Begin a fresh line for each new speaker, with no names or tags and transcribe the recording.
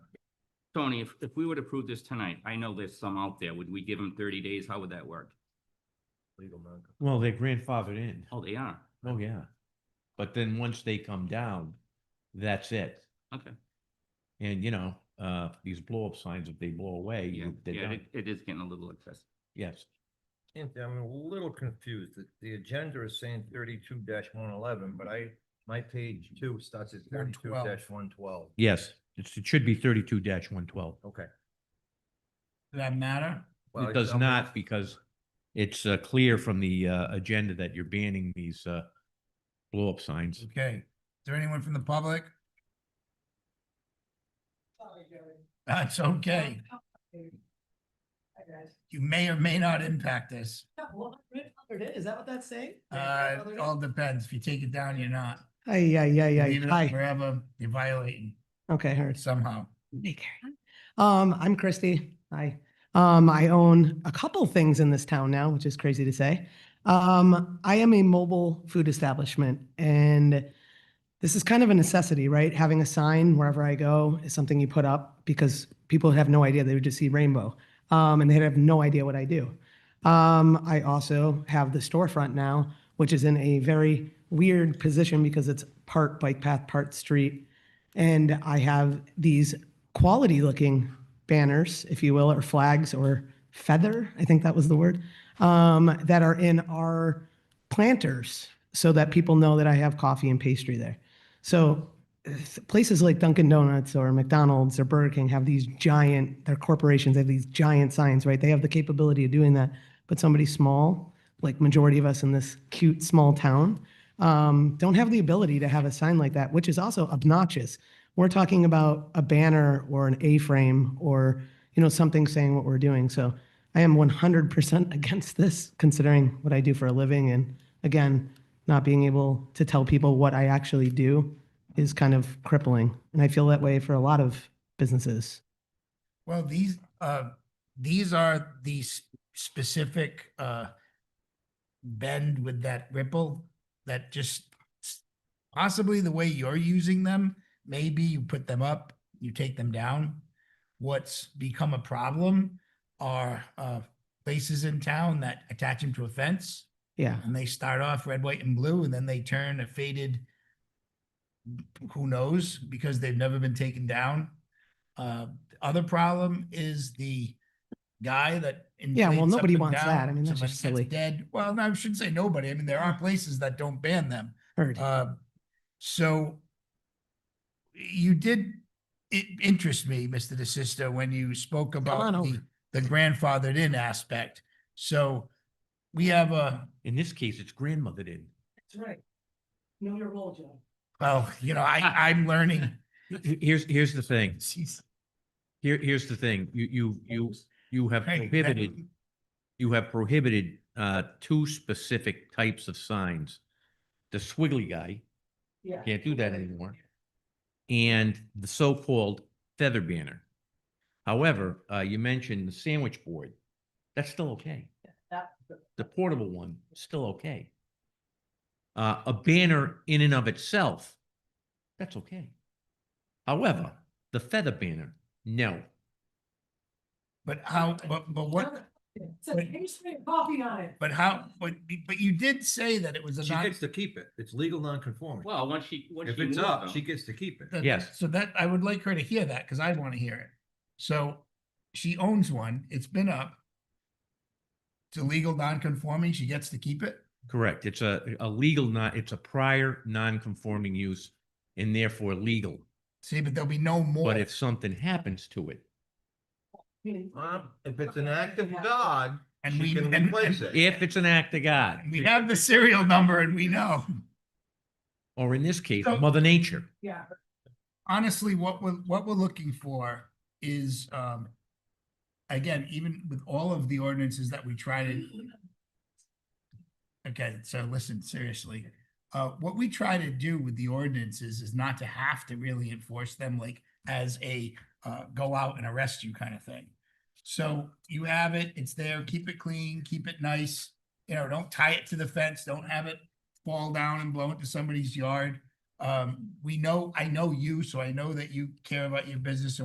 Tony, if, if we would approve this tonight, I know there's some out there. Would we give them thirty days? How would that work?
legal non.
Well, they're grandfathered in.
Oh, they are.
Oh, yeah. But then once they come down, that's it.
Okay.
And you know, uh, these blow up signs, if they blow away,
Yeah,
you- they're
yeah,
done.
it- it is getting a little excessive.
Yes.
I'm a little confused. The- The agenda is saying thirty-two one eleven, but I, my page two starts at thirty-two
112.
one twelve.
Yes, it's, it should be thirty-two one twelve.
Okay.
Does that matter?
Well,
It
it's
does
almost-
not because it's, uh, clear from the, uh, agenda that you're banning these, uh, blow up signs.
Okay. Is there anyone from the public?
Sorry, Joey.
That's okay.
Hi, guys.
You may or may not impact this.
Yeah, well, grandfathered in, Is that what that's saying?
Uh,
Grandfathered
it
in?
all depends. If you take it down, you're not.
Hi, yeah, yeah,
Leave
yeah.
it up
Hi.
Forever, you're violating
Okay, heard.
somehow.
Hey, Karen. Um, I'm Christy. Hi. Um, I own a couple things in this town now, which is crazy to say. Um, I am a mobile food establishment and this is kind of a necessity, right? Having a sign wherever I go is something you put up because people have no idea. They would just see rainbow. Um, and they'd have no idea what I do. Um, I also have the storefront now, which is in a very weird position because it's part bike path, part street. And I have these quality looking banners, if you will, or flags or feather, I think that was the word, um, that are in our planters so that people know that I have coffee and pastry there. So uh, places like Dunkin' Donuts or McDonald's or Burger King have these giant, their corporations have these giant signs, right? They have the capability of doing that. But somebody small, like majority of us in this cute small town, um, don't have the ability to have a sign like that, which is also obnoxious. We're talking about a banner or an A-frame or, you know, something saying what we're doing. So I am 100% against this, considering what I do for a living. And again, not being able to tell people what I actually do is kind of crippling. And I feel that way for a lot of businesses.
Well, these, uh, these are the s- specific, uh, bend with that ripple that just s- possibly the way you're using them, maybe you put them up, you take them down. What's become a problem are, uh, places in town that attach them to a fence
Yeah.
and they start off red, white, and blue, and then they turn a faded, who knows, because they've never been taken down. Uh, other problem is the guy that.
Yeah, well,
inflates up
nobody
and
wants
down,
that. I mean, that's
somebody
just
gets
silly.
Dead. Well, no, I shouldn't say nobody. I mean, there are places that don't ban them.
Heard.
Uh, so you did, it interests me, Mr. De Sisto, when you spoke about
on
the,
over.
the grandfathered in aspect. So we have a,
In this case, it's grandmothered in.
That's right. Know your role, Joe.
Well, you know, I, I'm learning.
H- Here's, here's the thing. Here, here's the thing. You, you, you, you have
Hey, that-
prohibited you have prohibited uh, two specific types of signs. The swiggly guy,
Yeah.
can't do that anymore, and the so-called feather banner. However, uh, you mentioned the sandwich board. That's still okay. The portable one, still okay. Uh, A banner in and of itself, that's okay. However, the feather banner, no.
But how, but, but what,
It says pastry and coffee on it.
but how, but, but you did say that it was a
She
non.
gets to keep it. It's legal non-conforming.
Well, once she, once she.
If it's
moves
up,
them-
she gets to keep it.
that-
Yes.
So that, I would like her to hear that because I want to hear it. So she owns one, it's been up. It's illegal, non-conforming, she gets to keep it?
Correct. It's a, a legal, not, it's a prior non-conforming use and therefore legal.
See, but there'll be no more.
But if something happens to it,
Meaning-
Um, If it's an act of God,
And
she
we,
can
and,
replace
and
it.
if it's an act of God,
we have the serial number and we know.
or in this case,
So-
Mother Nature.
Yeah.
honestly, what we're what we're looking for is um. Again, even with all of the ordinances that we try to. Okay, so listen, seriously, uh, what we try to do with the ordinances is not to have to really enforce them like as a uh, go out and arrest you kind of thing. So you have it, it's there, keep it clean, keep it nice, you know, don't tie it to the fence, don't have it fall down and blow into somebody's yard. Um, we know, I know you, so I know that you care about your business and